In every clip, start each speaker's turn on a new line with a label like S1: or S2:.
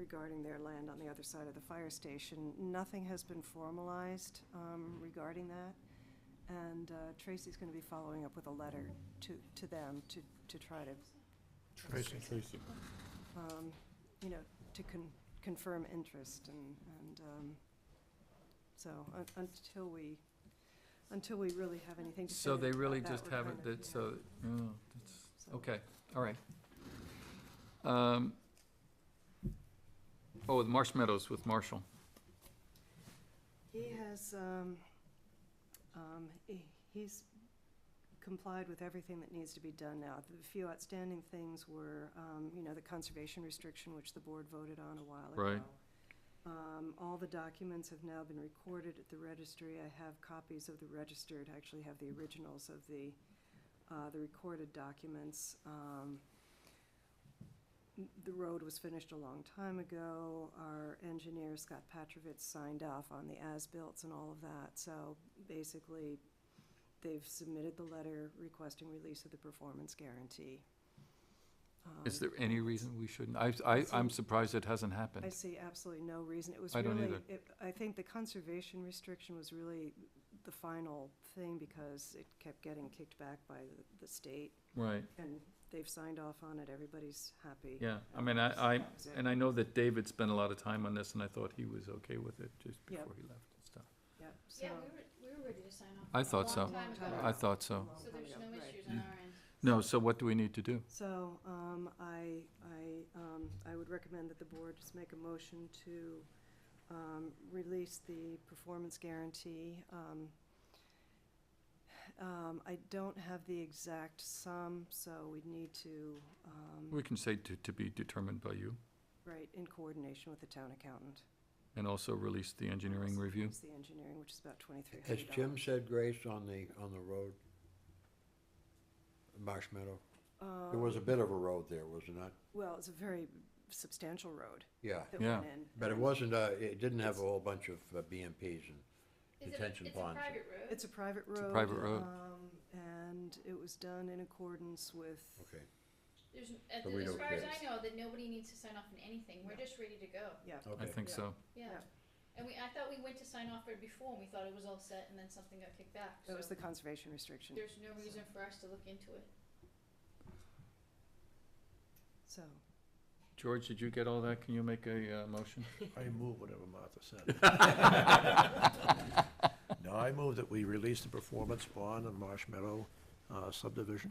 S1: regarding their land on the other side of the fire station. Nothing has been formalized um, regarding that, and uh, Tracy's going to be following up with a letter to, to them to, to try to
S2: Tracy. Tracy.
S1: um, you know, to con- confirm interest and, and, um, so, un- until we, until we really have anything to say
S3: So they really
S1: about that,
S3: just
S1: we're
S3: haven't,
S1: kind of-
S3: that,
S1: yeah,
S3: so, oh, that's,
S1: so-
S3: okay, all right. Um, Oh, the Marsh Meadows with Marshall.
S1: He has, um, um, he- he's complied with everything that needs to be done now. The few outstanding things were, um, you know, the conservation restriction, which the board voted on a while ago.
S3: Right.
S1: Um, all the documents have now been recorded at the registry. I have copies of the registered, I actually have the originals of the, uh, the recorded documents. Um, m- the road was finished a long time ago. Our engineer, Scott Petrovitz, signed off on the as-built and all of that. So basically, they've submitted the letter requesting release of the performance guarantee.
S3: Is
S1: Um,
S3: there any reason we shouldn't? I, I, I'm
S1: So-
S3: surprised it hasn't
S1: I
S3: happened.
S1: see absolutely no reason. It was
S3: I don't
S1: really,
S3: either.
S1: it- I think the conservation restriction was really the final thing because it kept getting kicked back by the- the state
S3: Right,
S1: and they've signed off on it. Everybody's happy.
S3: yeah, I mean, I, I,
S1: That was it.
S3: and I know that David spent a lot of time on this, and I thought he was okay with it just
S1: Yeah.
S3: before he left and stuff.
S1: Yep, so.
S4: Yeah, we were, we were ready to sign off.
S3: I
S4: a
S3: thought so.
S4: Long time ago.
S1: Long
S3: I thought so.
S1: Long
S4: So
S1: time
S4: there's
S1: ago,
S4: no
S1: right.
S4: issues on our end.
S3: No, so what do we need to do?
S1: So, um, I, I, um, I would recommend that the board just make a motion to, um, release the performance guarantee. Um, um, I don't have the exact sum, so we'd need to, um,
S3: We can say to, to be determined by you,
S1: right, in coordination with the town accountant.
S3: and also release the engineering review.
S1: It's the engineering, which is about twenty-three
S2: Has
S1: hundred dollars.
S2: Jim said grace on the, on the road? Marsh Meadow? There was a bit of a road there, was it not?
S1: Well, it's a very substantial road
S2: Yeah,
S1: that
S3: Yeah.
S1: went in.
S2: but it wasn't, uh, it didn't have a whole bunch of uh, BMPs and,
S4: Is it a-
S2: Detention ponds.
S4: It's a private road.
S1: It's a private road.
S3: It's a private road.
S1: um, And it was done in accordance with.
S2: okay.
S4: There's, n- at
S2: But
S4: the-
S2: we
S4: as
S2: don't
S4: far as
S2: care.
S4: I know, that nobody needs to sign off on anything. We're just ready to go.
S1: Yeah,
S3: I
S2: Okay.
S3: think
S1: Yeah.
S3: so.
S4: Yeah.
S1: Yeah.
S4: And we, I thought we went to sign off for it before and we thought it was all set and then something got kicked back.
S1: that was
S4: so
S1: the conservation restriction,
S4: There's no reason for us to look into it.
S1: so.
S3: George, did you get all that? Can you make a, uh, motion?
S5: I move whatever Martha said. No, I move that we release the performance bond on Marsh Meadow uh, subdivision.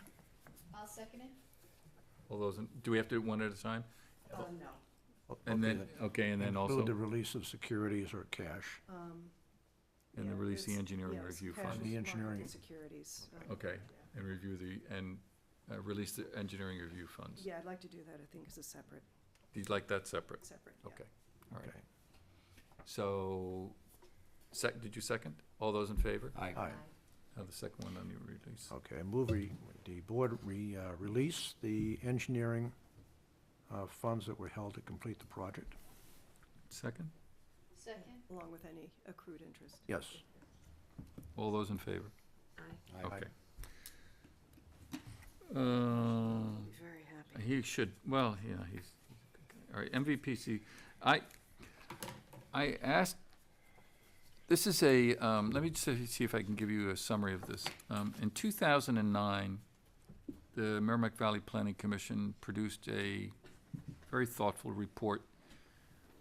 S4: I'll second it.
S3: All those, in- do we have to do one at a time?
S1: no.
S3: And
S5: Okay,
S3: then, okay, and then also,
S5: Include the release of securities or cash.
S1: um,
S3: and then release the engineering review
S5: cash.
S3: fund.
S5: The engineering-
S1: Securities. um,
S3: Okay, and review the, and, uh, release the engineering review funds.
S1: Yeah, I'd like to do that, I think, as a separate,
S3: You'd like that separate?
S1: separate, yeah.
S3: Okay, all right.
S5: Okay.
S3: So, sec, did you second? All those in favor?
S5: Aye.
S3: Now the second one on the release.
S5: Okay, I move we, the board re, uh, release the engineering uh, funds that were held to complete the project.
S3: Second?
S4: Second.
S1: Along with any accrued interest.
S5: Yes.
S3: All those in favor?
S2: Aye.
S3: Okay. Uh,
S1: I'll be very happy.
S3: He should, well, yeah, he's, all right, MVPC, I, I asked, this is a, um, let me just see- see if I can give you a summary of this. Um, in two thousand and nine, the Merrimack Valley Planning Commission produced a very thoughtful report,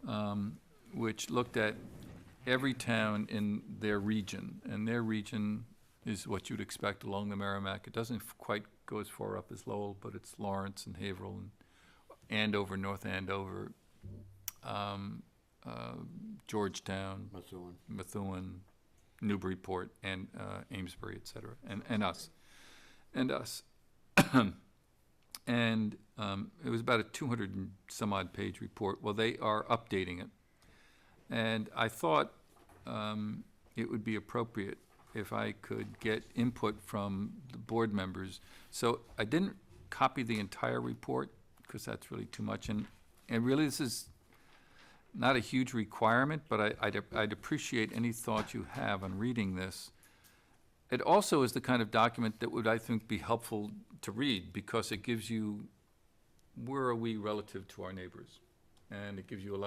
S3: um, which looked at every town in their region, and their region is what you'd expect along the Merrimack. It doesn't f- quite go as far up as Lowell, but it's Lawrence and Haverhill and Andover, North Andover, um, uh, Georgetown,
S2: That's the one.
S3: Methuen, Newburyport, and uh, Amesbury, et cetera, and, and us, and us. and um, it was about a 200 and some odd page report. Well, they are updating it. And I thought um, it would be appropriate if I could get input from the board members. So I didn't copy the entire report because that's really too much. And, and really, this is not a huge requirement, but I, I'd, I'd appreciate any thoughts you have on reading this. It also is the kind of document that would, I think, be helpful to read, because it gives you, where are we relative to our neighbors? And it gives you a lot